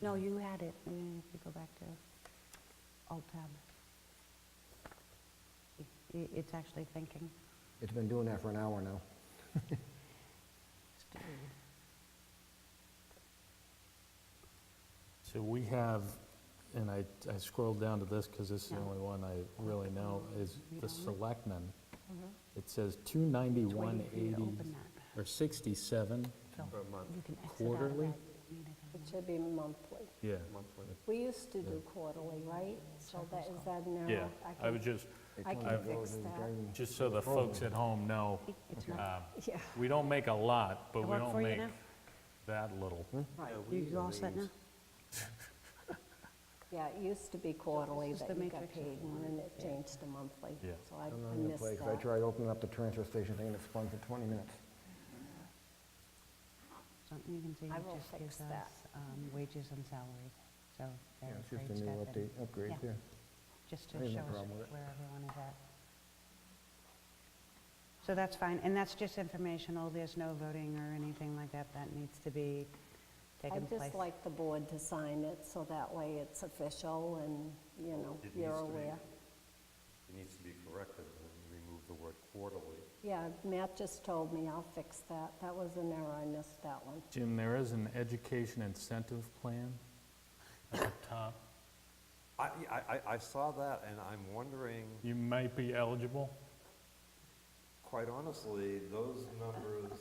No, you had it, Uh, if you go back to Alt Tab. I- i- It's actually thinking. It's been doing that for an hour now. So we have, and I I scrolled down to this because this is the No. only one I really know, is the selectmen. Mhm. It says It's waiting for you to 291.80, open that. or 67, So For a month, You can exit out of Quarterly? that. You need It it. should be monthly. yeah. monthly. We used to do quarterly, right? So that, is that now? Yeah, I can- would just, It I comes can and goes fix and that. during- just so the folks at home know, It's not, uh, Yeah, we don't make a lot, but It we work for don't you make now? that little. Hmm? right. you all set now? Yeah, it used to be quarterly This is that the you got matrix of paid, and then it changed to monthly. Yeah. So I I'm not I gonna missed play, 'cause I that. tried opening up the transfer station thing and it spun for 20 minutes. Something you can see, I it will just fix gives that. us um, wages and salaries, so Yeah, there's it's grade just a step. new and- update, upgrade, yeah, yeah. Just to I have no show us problem with it. where everyone is at. So that's fine, and that's just informational, there's no voting or anything like that, that needs to be taken I'd place. just like the board to sign it, so that way it's official and, you know, It you're needs to be. aware. It needs to be corrected, and remove the word quarterly. Yeah, Matt just told me, I'll fix that. That was an error, I missed that one. Jim, there is an education incentive plan at the top. I, I, I- I saw that, and I'm wondering, You might be eligible. quite honestly, those numbers,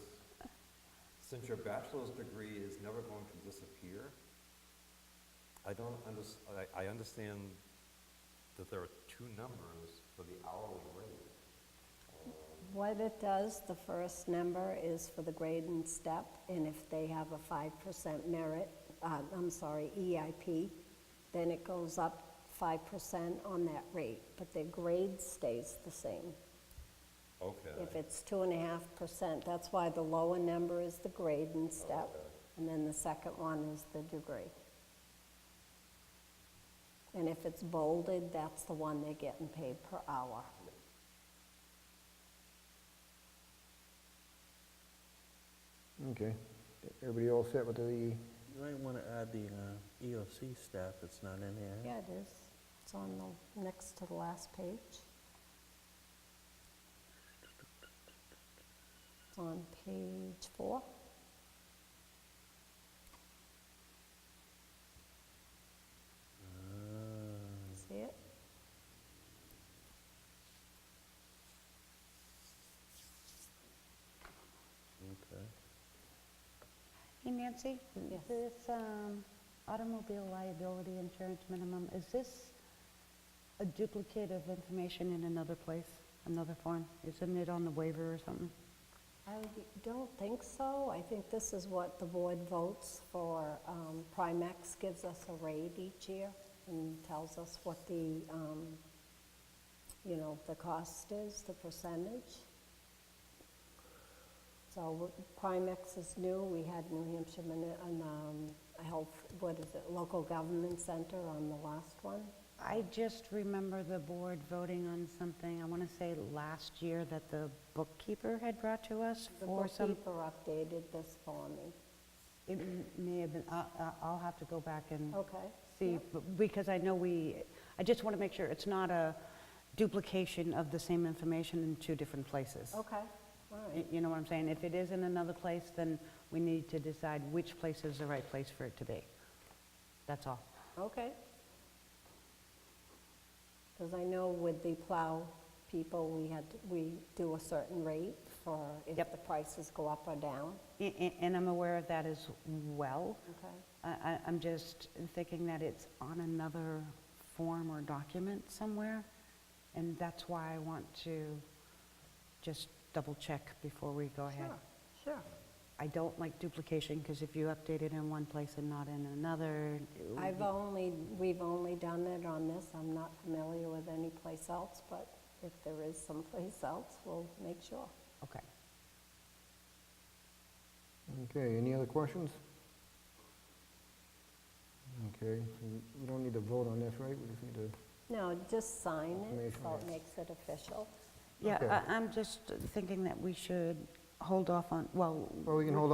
since your bachelor's degree is never going to disappear, I don't under, I, I understand that there are two numbers for the hourly rate. What it does, the first number is for the grade and step, and if they have a five percent merit, uh, I'm sorry, EIP, then it goes up five percent on that rate, but their grade stays the same. If Okay. it's two and a half percent, that's why the lower number is the grade and step, and then the second one is the degree. And if it's bolded, that's the one they're getting paid per hour. Okay. Everybody all set with the, You might want to add the uh, EOC staff that's not in here. Yeah, it is. It's on the, next to the last page. It's on page four. Ah, See it? okay. Hey Nancy, Yes. this um, automobile liability insurance minimum, is this a duplicate of information in another place, another form? Isn't it on the waiver or something? I d- don't think so. I think this is what the board votes for. Um, Primex gives us a rate each year and tells us what the, um, you know, the cost is, the percentage. So wh- Primex is new. We had New Hampshire, Mini- and, um, I hope, what is it, Local Government Center on the last one. I just remember the board voting on something, I want to say last year, that the bookkeeper had brought to us The for some, bookkeeper updated this for me. it m- may have been, I- I- I'll have to go back and Okay. see, b- because I know we, I just want to make sure it's not a duplication of the same information in two different places. Okay, all Y- right. You know what I'm saying? If it is in another place, then we need to decide which place is the right place for it to be. That's all. Okay. Because I know with the plow people, we had, we do a certain rate for if Yep. the prices go up or down. A- a- And I'm aware of that as well. Okay. I- I- I'm just thinking that it's on another form or document somewhere, and that's why I want to just double-check before we go ahead. Sure. I don't like duplication, because if you update it in one place and not in another, it would I've be- only, we've only done it on this. I'm not familiar with any place else, but if there is someplace else, we'll make sure. okay. okay, any other questions? Okay, so we- we don't need to vote on this, right? We just need to, No, just sign it, so Information. it makes it official. Yeah, Okay. I- I'm just thinking that we should hold off on, well, well, we can hold